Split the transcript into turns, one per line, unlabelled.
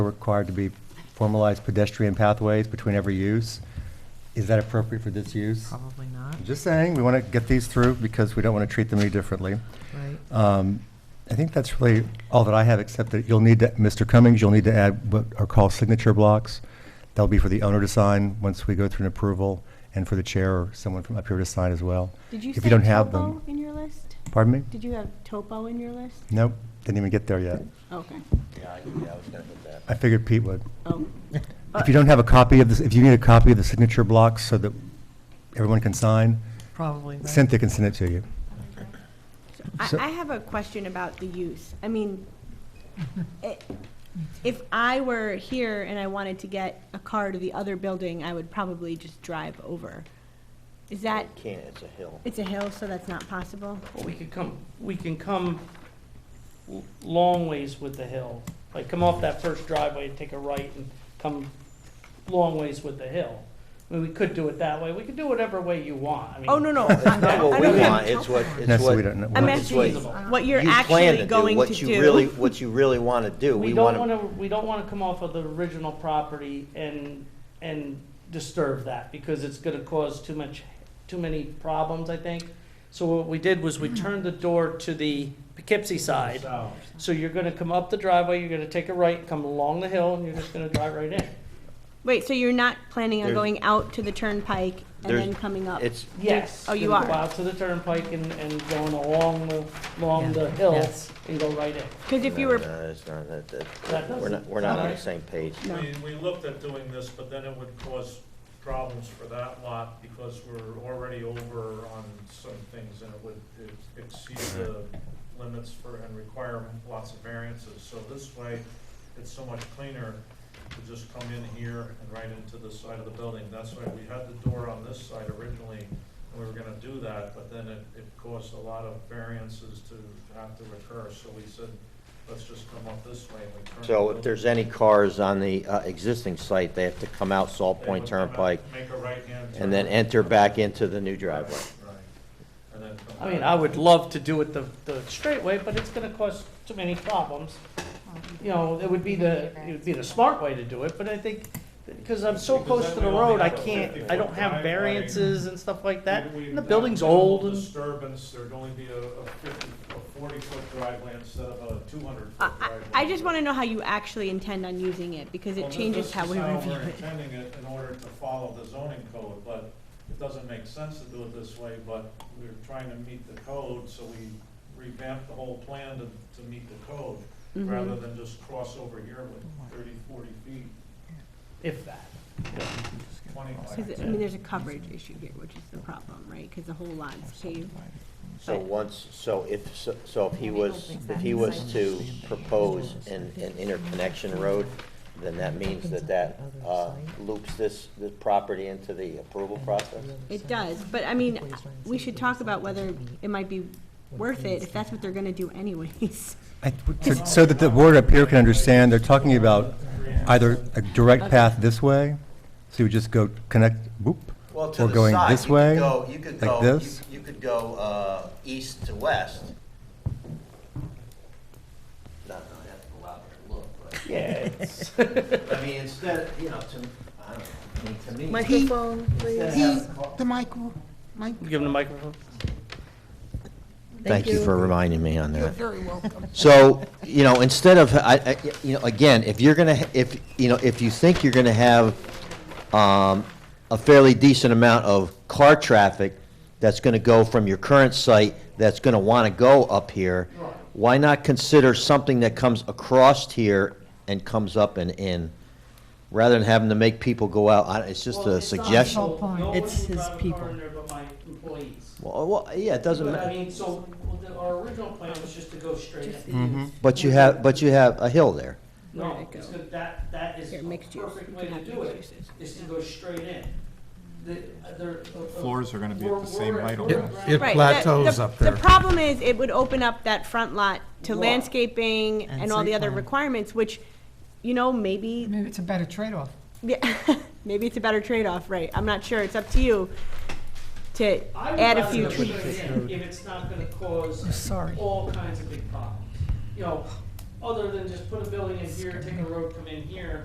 required to be formalized pedestrian pathways between every use. Is that appropriate for this use?
Probably not,
Just saying, we want to get these through because we don't want to treat them any differently.
right?
Um, I think that's really all that I have, except that you'll need, to Mr. Cummings, you'll need to add what are called signature blocks. That'll be for the owner to sign once we go through an approval, and for the chair or someone from up here to sign as well.
Did you
If
say
you don't have them-
topo in your list?
Pardon me?
Did you have topo in your list?
Nope, didn't even get there yet.
Okay,
I figured Pete would.
oh,
If you don't have a copy of this, if you need a copy of the signature blocks so that everyone can sign,
Probably, right?
Cynthia can send it to you.
So I,
So-
I have a question about the use. I mean, i- if I were here and I wanted to get a car to the other building, I would probably just drive over. Is that,
Can't, it's a hill.
it's a hill, so that's not possible?
Well, we could come, we can come l- long ways with the hill. Like, come off that first driveway, take a right, and come long ways with the hill. I mean, we could do it that way. We could do whatever way you want. I mean,
Oh, no, no.
It's not what
I
we
don't have
want, it's what,
topo.
No,
it's
so
what.
we don't know.
I'm
it's
It's
asking
what
feasible.
what
you
you're
plan
actually
to do,
going
what
to
you really-
do.
What you really want to do,
We
we
don't
want to,
wanna, we don't wanna come off of the original property and, and disturb that, because it's gonna cause too much, too many problems, I think. So what we did was we turned the door to the Poughkeepsie side. So you're gonna come up the driveway, you're gonna take a right, come along the hill, and you're just gonna drive right in.
Wait, so you're not planning on
There's-
going out to the turnpike and
There's-
then coming up?
it's,
Yes.
Oh, you
gonna Go
are.
out to the turnpike and, and going along the, along
Yeah.
the hill
Yes.
and go right in.
Because if you
no,
were,
no, it's not, that,
That
that, we're
doesn't
not, we're not
sound
on the
right.
same page.
No.
We, we looked at doing this, but then it would cause problems for that lot because we're already over on some things and it would exceed the limits for, and require lots of variances. So this way, it's so much cleaner to just come in here and right into this side of the building. That's why we had the door on this side originally, and we were gonna do that, but then it, it caused a lot of variances to have to occur. So we said, let's just come up this way and we turn.
So
the
if there's any cars on the uh, existing site, they have to come out Salt
they
Point
would come out,
Turnpike
Make a right-hand turn.
and then enter back into the new
Right,
driveway.
right. And then come
I mean,
back.
I would love to do it the, the straight way, but it's gonna cause too many problems. You know, it would be the, it would be the smart way to do it, but I think, because I'm so
Because
close to
then
the
we only
road, I
have a
can't, I
50-foot
don't have
driveway.
variances and stuff like that,
We- we-
and the building's
that minimal
old and.
Disturbance, there'd only be a a fifty, a forty-foot driveway instead of a
I,
two-hundred-foot
I-
driveway.
I just want to know how you actually intend on using it, because
Well,
it
this-
changes
this
how
is
we review
we're
it.
intending it in order to follow the zoning code, but it doesn't make sense to do it this way, but we're trying to meet the code, so we revamped the whole plan to, to meet the code,
Mm-hmm.
rather than just cross over here with 30, 40 feet,
If that.
Because, I mean, there's a coverage issue here, which is the problem, right? Because the whole lot's paved.
So
Right.
once, so if, so- so if he
Well, we don't
was,
think
if
that
he
is
was
like
to
standard.
propose an, an interconnection road, then that means that that uh, loops this, this property into the approval process?
It does, but I mean, we should talk about whether it might be worth it, if that's what they're gonna do anyways.
I- so- So that the board up here can understand, they're talking about either a direct path this way, so you would just go connect, whoop,
Well, to
or
the
going
side,
this
you could
way,
go- you could
like
go-
this.
You you could go uh, east to west. No, no, I have to go out there and look, but,
Yeah, it's,
I mean, instead, of, you know, to, I don't know, I mean, to me.
Microphone,
instead of
please.
having car-
The micro, mic.
give him the microphone.
Thank you for reminding me on
You're
that.
very welcome.
So, you know, instead of, I, I, you know, again, if you're gonna, if, you know, if you think you're gonna have, um, a fairly decent amount of car traffic that's gonna go from your current site, that's gonna wanna go up here, why not consider something that comes across here and comes up and in, rather than having to make people go out, I, it's just
Well,
a
it's not
suggestion.
people. No one
It's
will
his
drive a car
people.
in there but my employees.
Well, well, yeah, it doesn't
But I
matter,
mean, so, well, the- our original plan was just to go straight in.
but you have, but you have a hill there.
Where
No,
did it
it's
go?
good, that, that is
Here,
a
mixed use.
perfect
You
way
can
to
have
do
mixed
it, is to go straight in. The, other- uh, uh,
Floors are gonna be at
we're-
the same
we're-
height all
we're
around.
around-
It
Right, the-
plateaus
the-
up
The
there.
problem is, it would open up that front lot to
Lot.
landscaping
And
and all the
site
other
plan.
requirements, which, you know, maybe
Maybe it's a better trade-off.
Yeah, maybe it's a better trade-off, right? I'm not sure. It's up to you to
I would
add a
rather
few
go
tweaks.
straight in If it's not gonna cause
Sorry.
all kinds of big problems. You know, other than just put a building in here, take a road, come in here,